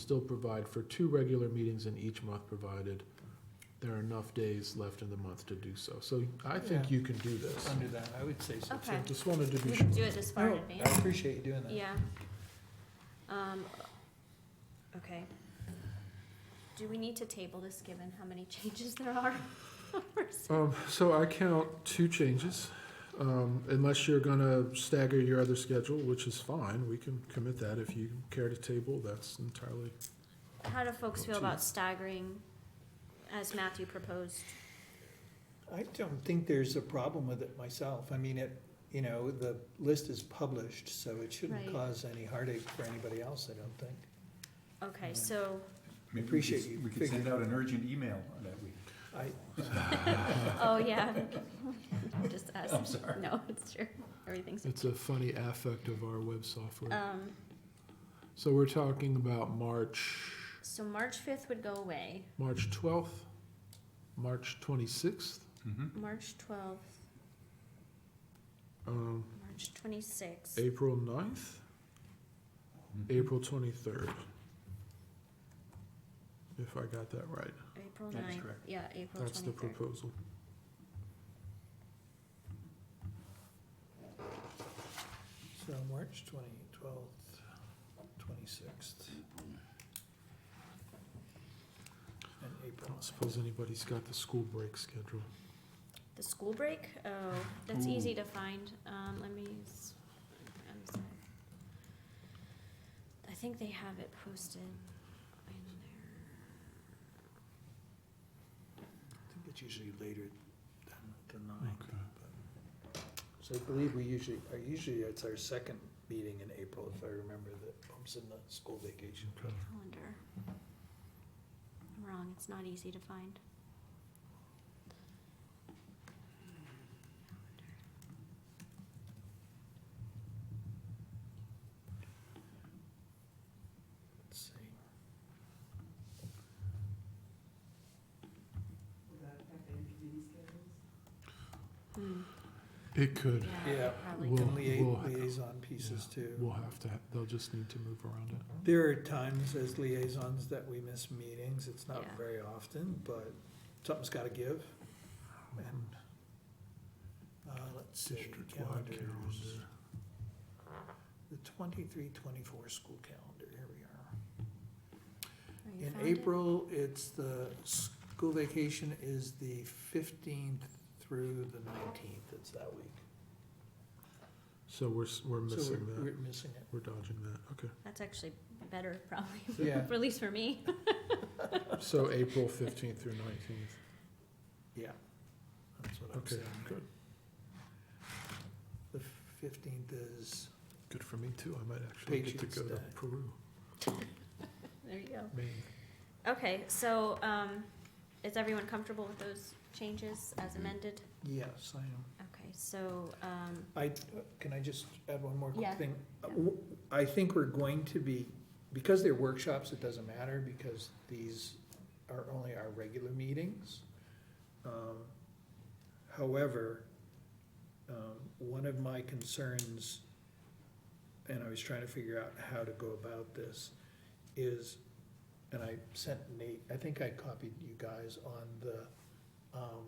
still provide for two regular meetings in each month, provided there are enough days left in the month to do so. So I think Yeah. you can do this. Under that, I would say so too. I Okay. Just wanted to We be can sure. do it this far in No, I advance. appreciate you doing that. Yeah. Um, okay. Do we need to table this, given how many changes there are? Um, so I count two changes, um, unless you're gonna stagger your other schedule, which is fine, we can commit that. If you care to table, that's entirely, How do folks feel about staggering, as Matthew proposed? I don't think there's a problem with it myself. I mean, it, you know, the list is published, so it shouldn't Right. cause any heartache for anybody else, I don't think. Okay, Mhm. so, Maybe we Appreciate could- you We could send figuring- out an urgent email that week. I, oh, yeah. Just ask. I'm sorry. No, it's true. Everything's. it's a funny affect of our web Uh. software. Um, So we're talking about March, so March fifth would go away, March twelfth, March twenty-sixth, Mhm. March twelfth, um, March twenty-sixth. April ninth, April twenty-third. If I got that right, April That is ninth, correct. yeah, April that's the twenty-third. proposal. so March twenty, twelfth, twenty-sixth. And I April. don't suppose anybody's got the school break schedule. The school break, oh, that's Ooh. easy to find, um, let me, s- I'm sorry. I think they have it posted in there. I think it's usually later than, than nine. Okay. So I believe we usually, uh, usually it's our second meeting in April, if I remember, that bumps in the school vacation. Okay. Calendar. I'm wrong, it's not easy to find. Let's see. Hmm, It could. yeah, Yeah, probably. Well- And lia- we'll- liaison pieces We'll too. have to, they'll just need to move around it. There are times as liaisons that we miss meetings, it's not Yeah. very often, but something's gotta give. And, uh, let's see, District-wide calendars. calendar. The twenty-three, twenty-four school calendar, here we are. Oh, you In found it? April, it's the, school vacation is the fifteenth through the nineteenth, it's that week. So we're, s- we're So missing we're- that. We're missing it. We're dodging that. Okay. That's actually better, probably, Yeah. at least for me. So April 15th through 19th. Yeah, that's what I'm Okay, saying. good. The fifteenth is, Good for me too. I might actually get to Patriots go to Day. Peru, There you go. Maine. Okay, so, um, is everyone comfortable with those changes as amended? yes, I am. Okay, so, um, I, can I just add one more Yeah. quick thing? Uh, w- I think we're going to be, because they're workshops, it doesn't matter, because these are only our regular meetings. Um, However, um, one of my concerns, and I was trying to figure out how to go about this, is, and I sent Nate, I think I copied you guys on the, um,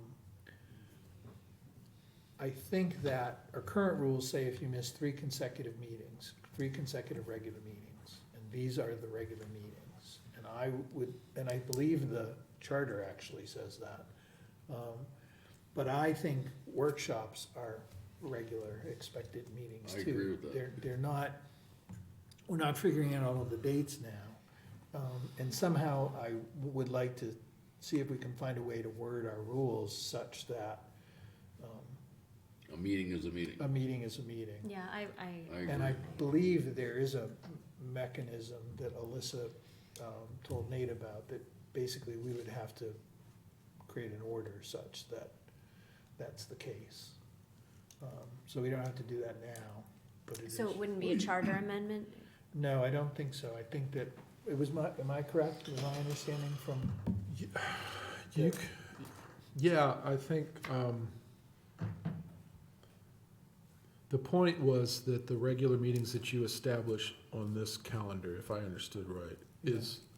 I think that our current rules say if you miss three consecutive meetings, three consecutive regular meetings, and these are the regular meetings. And I would, and I believe the charter actually says that. Um, But I think workshops are regular expected meetings too. I agree with that. They're, they're not, we're not figuring out all of the dates now. Um, And somehow I would like to see if we can find a way to word our rules such that um, A meeting is a meeting. a meeting is a meeting. yeah, I, I, I And I agree. believe there is a mechanism that Alyssa um, told Nate about, that basically we would have to create an order such that that's the case. Um, So we don't have to do that now, but it is. so it wouldn't be a charter amendment? No, I don't think so. I think that, it was my, am I correct? Was my understanding from, You, Yeah. c- yeah, I think, um, the point was that the regular meetings that you establish on this calendar, if I understood right, is